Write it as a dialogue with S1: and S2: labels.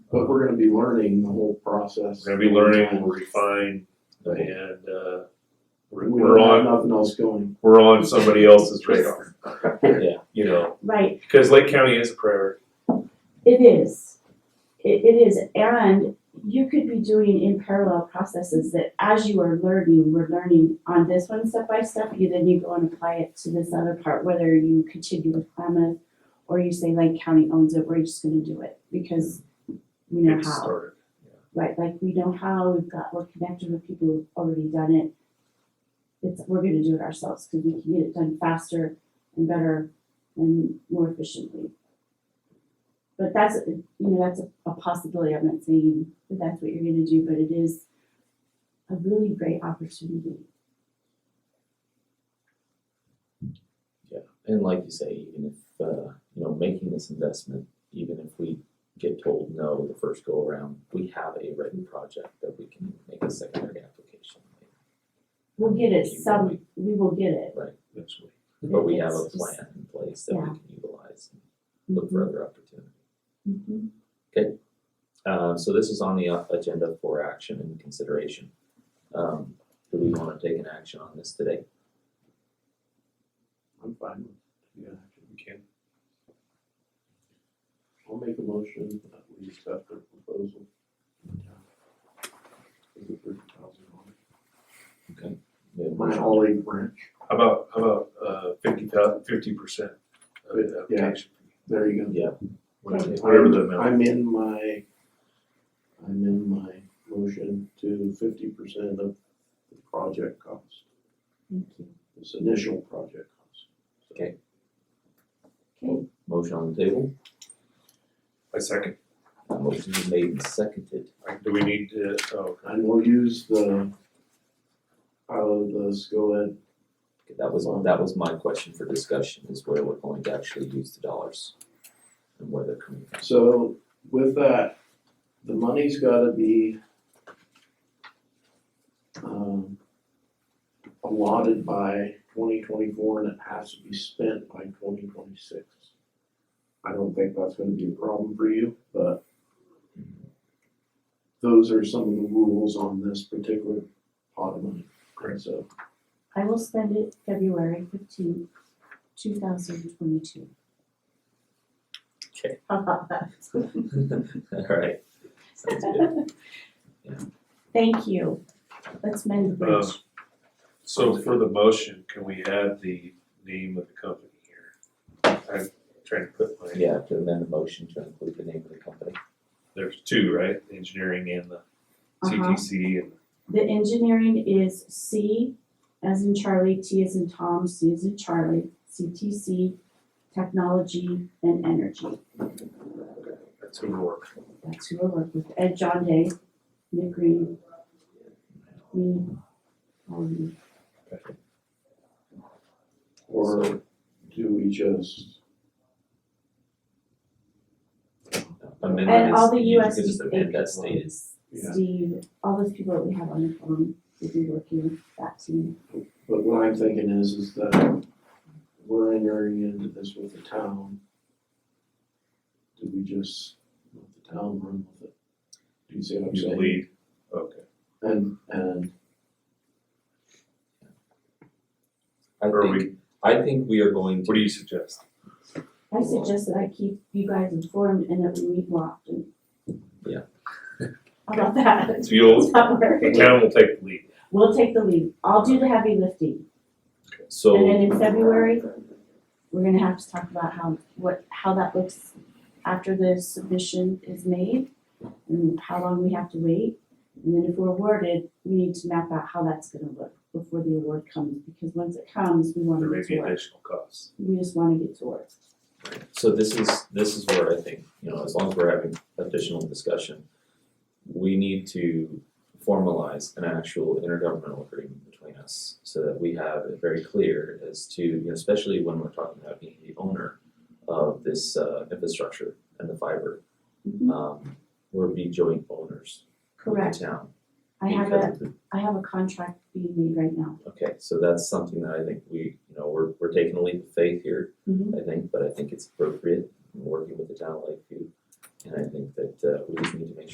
S1: But we're gonna be learning the whole process.
S2: We're gonna be learning, we'll refine, and, uh, we're,
S1: We
S2: we're
S1: don't have
S2: on,
S1: nothing else going.
S2: we're on somebody else's radar,
S3: Yeah.
S2: you know,
S4: Right,
S2: because Lake County is a priority.
S4: it is. It, it is, and you could be doing in parallel processes that as you are learning, we're learning on this one step by step, you then you go and apply it to this other part, whether you continue with Klamath or you say Lake County owns it, we're just gonna do it because we know
S2: It
S4: how.
S2: started.
S4: Right, like we know how, we've got, we're connected with people who've already done it. It's, we're gonna do it ourselves, cause we can get it done faster and better and more efficiently. But that's, you know, that's a, a possibility, I'm not saying that that's what you're gonna do, but it is a really great opportunity.
S3: And like you say, even if, uh, you know, making this investment, even if we get told no the first go around, we have a written project that we can make a secondary application.
S4: We'll get it some, we will get it.
S2: Eventually.
S3: But we have a
S4: It's just-
S3: plan in place that we
S4: Yeah. Mm-hmm.
S3: can utilize and look for other opportunities.
S4: Mhm.
S3: Uh, so this is on the uh, agenda for action and consideration. Um, do we wanna take an action on this today?
S1: I'm fine with, yeah,
S2: We can.
S1: I'll make a motion that we accept the proposal. Is it thirty thousand dollars?
S3: We have a
S1: My
S3: motion.
S1: olive branch,
S2: How about, how about, uh, fifty thousand, fifty percent of the
S1: Yeah.
S2: application?
S1: there you go.
S3: Yeah.
S2: Whatever whatever the amount.
S1: I'm in my, I'm in my motion to fifty percent of the project cost,
S4: Thank you.
S1: this initial project cost.
S4: Okay,
S3: Motion on the table,
S2: I second.
S3: motion is made and seconded.
S2: Like, Do we need to, oh,
S1: And we'll use the, out of the SCOED,
S3: Okay, That was, that was my question for discussion, is where we're going to actually use the dollars and where they're coming from.
S1: so with that, the money's gotta be um, allotted by twenty twenty-four and it has to be spent by twenty twenty-six. I don't think that's gonna be a problem for you, but those are some of the rules on this particular pot of money.
S2: Great.
S1: So,
S4: I will spend it February fifteenth, two thousand twenty-two.
S3: Okay.
S4: How about that?
S3: Alright, sounds good.
S4: Thank you. Let's mend the bridge.
S2: Um, so for the motion, can we add the name of the company here? I'm trying to put my,
S3: Yeah, to amend the motion to include the name of the company.
S2: there's two, right? Engineering and the
S4: Uh-huh.
S2: CTC and
S4: The engineering is C as in Charlie, T as in Tom, C as in Charlie, CTC, technology and energy.
S2: that's who we're working.
S4: That's who I work with. Ed John Day, Nick Green, me, all of you.
S1: or do we just,
S3: Amendment
S4: And all the
S3: is- you could
S4: USD
S3: just amend that stated.
S1: Yeah.
S4: Steve, all those people that we have on the phone, we'll be working with that team.
S1: But what I'm thinking is, is that we're entering into this with the town. Do we just let the town run with it? Do you see what I'm
S2: You
S1: saying?
S2: lead, okay.
S1: And, and
S3: I
S2: Or we-
S3: think, I think we are going to.
S2: What do you suggest?
S4: I suggest that I keep you guys informed and that we meet more often.
S3: Yeah.
S4: How about that?
S2: So you'll,
S4: Does that work?
S2: the town will take the lead.
S4: We'll take the lead. I'll do the heavy lifting. And then
S3: So,
S4: in February, we're gonna have to talk about how, what, how that looks after the submission is made and how long we have to wait. And then if we're awarded, we need to map out how that's gonna look before the award comes, because once it comes, we wanna
S2: There may
S4: get
S2: be
S4: to work.
S2: additional costs.
S4: We just wanna get to work.
S3: so this is, this is where I think, you know, as long as we're having additional discussion, we need to formalize an actual intergovernmental agreement between us so that we have it very clear as to, you know, especially when we're talking about being the owner of this uh infrastructure and the fiber,
S4: Mhm.
S3: um, we're be joint owners with
S4: Correct.
S3: the town.
S4: I have
S3: because
S4: a,
S3: of the
S4: I have a contract being made right now.
S3: Okay, so that's something that I think we, you know, we're, we're taking a leap of faith here,
S4: Mhm.
S3: I think, but I think it's appropriate, in working with the town of Lakeview. And I think that uh we just need to make sure